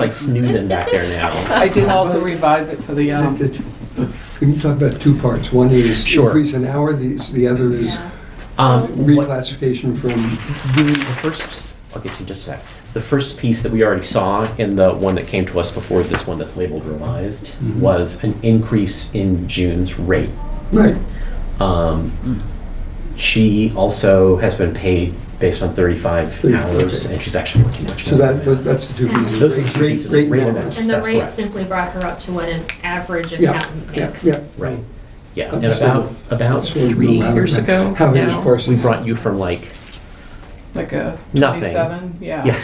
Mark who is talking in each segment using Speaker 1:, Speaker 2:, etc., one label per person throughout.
Speaker 1: like snoozing back there now.
Speaker 2: I did also revise it for the,
Speaker 3: I think
Speaker 2: um,
Speaker 3: that- Can you talk about two parts? One is
Speaker 1: Sure.
Speaker 3: increase in hour, the the other is
Speaker 4: Yeah.
Speaker 1: Um, what-
Speaker 3: reclassification from
Speaker 1: the, the first, I'll get to you in just a sec. The first piece that we already saw in the one that came to us before this one that's labeled revised
Speaker 3: Mm-hmm.
Speaker 1: was an increase in June's rate.
Speaker 3: Right,
Speaker 1: Um, She also has been paid based on 35
Speaker 3: 35,
Speaker 1: hours,
Speaker 3: okay.
Speaker 1: and she's actually working much
Speaker 3: so
Speaker 1: more. than
Speaker 3: that, that- that's the two pieces.
Speaker 1: Those are the two
Speaker 3: Rate-
Speaker 1: pieces,
Speaker 3: rate
Speaker 1: rate
Speaker 3: and
Speaker 1: and
Speaker 3: hours.
Speaker 4: And the
Speaker 1: That's
Speaker 4: rate
Speaker 1: correct.
Speaker 4: simply brought her up to what an average
Speaker 3: Yeah,
Speaker 4: accountant
Speaker 3: yeah,
Speaker 4: makes.
Speaker 3: yeah.
Speaker 1: Right, yeah. And
Speaker 3: That's
Speaker 1: about, about
Speaker 3: That's what we
Speaker 1: three
Speaker 3: know how-
Speaker 1: years ago,
Speaker 3: How it is
Speaker 2: now,
Speaker 1: we
Speaker 3: parsing.
Speaker 1: brought you from like,
Speaker 2: like a
Speaker 1: Nothing.
Speaker 2: twenty-seven, yeah,
Speaker 1: yeah,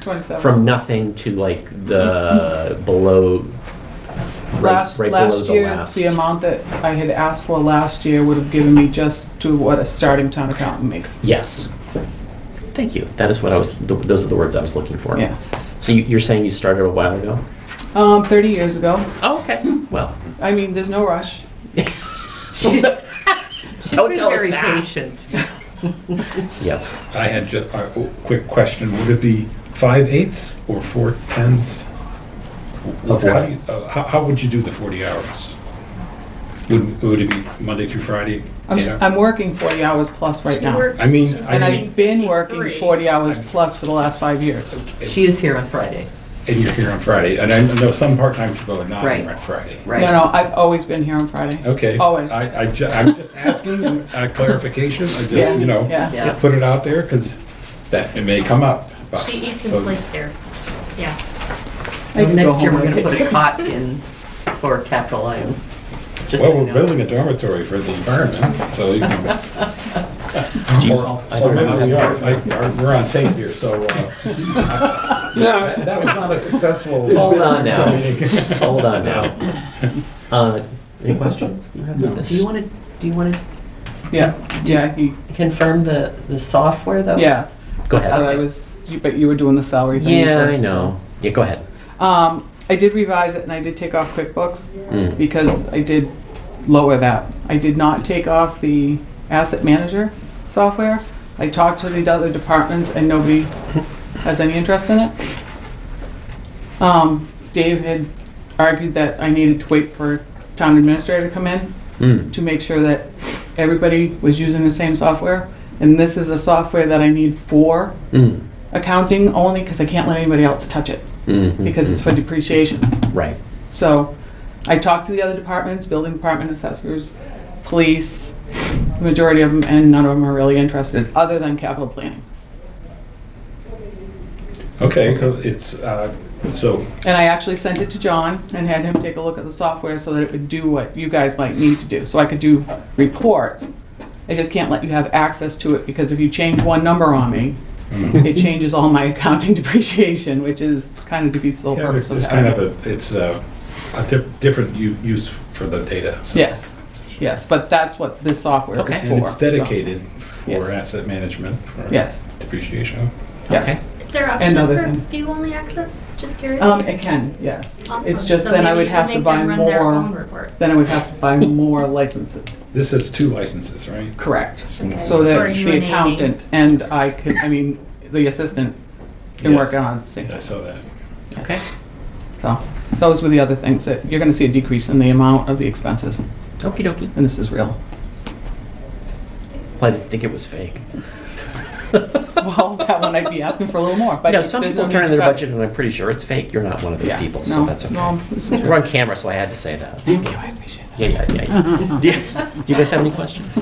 Speaker 2: twenty-seven.
Speaker 1: from nothing to like the below, right
Speaker 2: Last,
Speaker 1: right below
Speaker 2: last
Speaker 1: the
Speaker 2: year's,
Speaker 1: last.
Speaker 2: the amount that I had asked for last year would have given me just to what a starting town accountant makes.
Speaker 1: Yes. Thank you. That is what I was, th- those are the words I was looking for.
Speaker 2: Yeah.
Speaker 1: So you- you're saying you started a while ago?
Speaker 2: Um, thirty years ago.
Speaker 1: Oh, okay. Well,
Speaker 2: I mean, there's no rush.
Speaker 1: don't tell us
Speaker 5: very
Speaker 1: that.
Speaker 5: patient.
Speaker 1: Yep.
Speaker 6: I had ju- a w- quick question. Would it be five eighths or four tenths? How
Speaker 1: Of what?
Speaker 6: do you- uh, How, how would you do the 40 hours? Would, would it be Monday through Friday?
Speaker 2: I'm, s-
Speaker 6: Yeah.
Speaker 2: I'm working forty hours plus right
Speaker 4: She
Speaker 2: now.
Speaker 4: works-
Speaker 6: I mean,
Speaker 4: she's
Speaker 6: I
Speaker 2: And
Speaker 4: working
Speaker 2: I've been working
Speaker 4: 53.
Speaker 2: forty hours plus for the last five years.
Speaker 5: She is here on Friday.
Speaker 6: And you're here on Friday, and I know some part-time people are not here
Speaker 5: Right.
Speaker 6: on Friday.
Speaker 5: Right.
Speaker 2: No, no, I've always been here on Friday.
Speaker 6: Okay.
Speaker 2: Always.
Speaker 6: I, I ju- I'm just asking a clarification, I just,
Speaker 2: Yeah,
Speaker 6: you know,
Speaker 2: yeah.
Speaker 5: Yeah.
Speaker 6: put it out there, because that, it may come up. but-
Speaker 4: She eats
Speaker 6: so-
Speaker 4: and sleeps here. Yeah.
Speaker 2: I can go
Speaker 5: Next year,
Speaker 2: home
Speaker 5: we're
Speaker 2: and
Speaker 5: gonna put
Speaker 2: get-
Speaker 5: a cot in for capital item. Just so
Speaker 6: Well,
Speaker 5: you
Speaker 6: we're
Speaker 5: know.
Speaker 6: building a dormitory for the environment, so you can.
Speaker 1: Do you- I
Speaker 6: So
Speaker 1: don't know.
Speaker 6: maybe we are, like, are- we're on tape here, so, uh, that that was not a successful.
Speaker 1: Hold on now.
Speaker 6: meeting.
Speaker 1: Hold on now. Uh, Any questions? Do you have with
Speaker 5: Do you
Speaker 1: this?
Speaker 5: want to, do you want to
Speaker 2: Yeah, yeah, he-
Speaker 5: confirm the, the software though?
Speaker 2: yeah.
Speaker 1: Go
Speaker 2: That's what
Speaker 1: ahead.
Speaker 2: I was, you- but you were doing the salary thing
Speaker 1: Yeah, I
Speaker 2: first.
Speaker 1: know. Yeah, go ahead.
Speaker 2: Um, I did revise it and I did take off QuickBooks
Speaker 1: Mm.
Speaker 2: because I did lower that. I did not take off the asset manager software. I talked to the other departments and nobody has any interest in it. Um, Dave had argued that I needed to wait for town administrator to come in
Speaker 1: Mm.
Speaker 2: to make sure that everybody was using the same software. And this is a software that I need for
Speaker 1: Mm.
Speaker 2: accounting only because I can't let anybody else touch it
Speaker 1: Mhm.
Speaker 2: because it's for depreciation.
Speaker 1: Right.
Speaker 2: So I talked to the other departments, building department, assessors, police, the majority of them, and none of them are really interested, other than capital planning.
Speaker 6: Okay, so it's, uh, so,
Speaker 2: And I actually sent it to John and had him take a look at the software so that it would do what you guys might need to do. So I could do reports. I just can't let you have access to it because if you change one number on me, it changes all my accounting depreciation, which is kind of defeats the whole
Speaker 6: yeah,
Speaker 2: purpose
Speaker 6: it's
Speaker 2: of
Speaker 6: it's kind
Speaker 2: having
Speaker 6: of
Speaker 2: it.
Speaker 6: a, it's uh, a diff- different u- use for the data. so-
Speaker 2: Yes, yes, but that's what this software is for.
Speaker 1: Okay.
Speaker 6: And it's
Speaker 2: so-
Speaker 6: dedicated
Speaker 2: Yes.
Speaker 6: for asset management, for
Speaker 2: Yes,
Speaker 6: depreciation.
Speaker 2: yes.
Speaker 4: Is there
Speaker 2: And
Speaker 4: option
Speaker 2: other
Speaker 4: for
Speaker 2: thing.
Speaker 4: view-only access? Just curious.
Speaker 2: Um, it can, yes.
Speaker 4: Awesome.
Speaker 2: It's just
Speaker 4: So
Speaker 2: then I
Speaker 4: maybe
Speaker 2: would
Speaker 4: you
Speaker 2: have to
Speaker 4: make
Speaker 2: buy
Speaker 4: them run their own
Speaker 2: more,
Speaker 4: reports.
Speaker 2: then I would have to buy more licenses.
Speaker 6: This is two licenses, right?
Speaker 2: Correct.
Speaker 4: Okay.
Speaker 2: So
Speaker 4: For
Speaker 2: that
Speaker 4: you
Speaker 2: the
Speaker 4: and Amy.
Speaker 2: accountant and I could, I mean, the assistant can work
Speaker 6: Yes.
Speaker 2: on the same.
Speaker 6: I saw that.
Speaker 2: Okay. So those were the other things that, you're gonna see a decrease in the amount of the expenses,
Speaker 5: Okey dokey.
Speaker 2: and this is real.
Speaker 1: Well, I didn't think it was fake.
Speaker 2: Well, that one I'd be asking for a little more, but.
Speaker 1: No, some
Speaker 2: there's no
Speaker 1: people
Speaker 2: need
Speaker 1: turn in
Speaker 2: to
Speaker 1: their
Speaker 2: cut.
Speaker 1: budget and I'm pretty sure it's fake. You're not one of those
Speaker 2: Yeah.
Speaker 1: people, so
Speaker 2: No,
Speaker 1: that's okay.
Speaker 2: No, this is
Speaker 1: We're
Speaker 2: real.
Speaker 1: on camera, so I had to say that.
Speaker 2: Thank you, I appreciate
Speaker 1: Yeah, yeah, yeah. Do you- do you guys have any questions?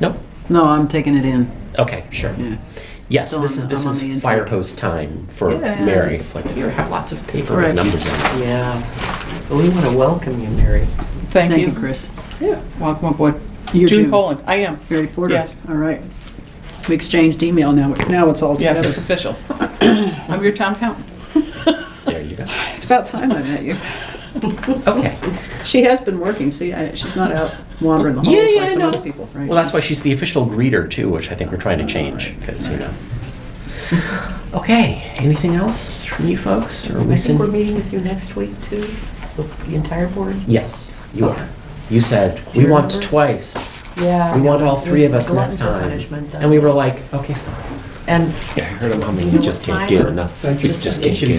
Speaker 1: No?
Speaker 7: No, I'm taking it in.
Speaker 1: Okay, sure.
Speaker 7: Yeah.
Speaker 1: Yes,
Speaker 7: Still
Speaker 1: this is,
Speaker 7: on the-
Speaker 1: this
Speaker 7: I'm on the
Speaker 1: is
Speaker 7: internet.
Speaker 1: fire hose time for
Speaker 7: Yeah,
Speaker 1: Mary. It's
Speaker 7: it's-
Speaker 1: like, here, have lots of paper with
Speaker 7: Right.
Speaker 1: numbers on it.
Speaker 5: Yeah. But we want to welcome you, Mary.
Speaker 2: Thank you.
Speaker 7: Chris.
Speaker 2: Yeah, welcome aboard.
Speaker 7: You're
Speaker 2: June
Speaker 7: June.
Speaker 2: Poland, I am.
Speaker 7: Mary Porter.
Speaker 2: Yes.
Speaker 7: All right. We exchanged email now. Now it's all
Speaker 2: Yes,
Speaker 7: together.
Speaker 2: it's official. I'm your town count.
Speaker 1: There you go.
Speaker 7: It's about time I met you.
Speaker 1: Okay.
Speaker 7: She has been working. See, I, she's not out wandering the halls
Speaker 1: Yeah, yeah,
Speaker 7: like
Speaker 1: I
Speaker 7: some
Speaker 1: know.
Speaker 7: other people. Right?
Speaker 1: Well, that's why she's the official greeter too, which I think we're trying to change, because, you know. Okay, anything else from you folks? Or are we
Speaker 5: I think we're
Speaker 1: send-
Speaker 5: meeting with you next week too, with the entire board.
Speaker 1: Yes, you are. You said,
Speaker 5: Do
Speaker 1: we
Speaker 5: you
Speaker 1: want
Speaker 5: remember?"
Speaker 1: twice.
Speaker 5: Yeah.
Speaker 1: We want all three of us next time. And we were like, okay, fine.
Speaker 8: And
Speaker 1: Yeah, I heard him humming, he just can't get enough.
Speaker 5: Thank you.
Speaker 1: He just can't get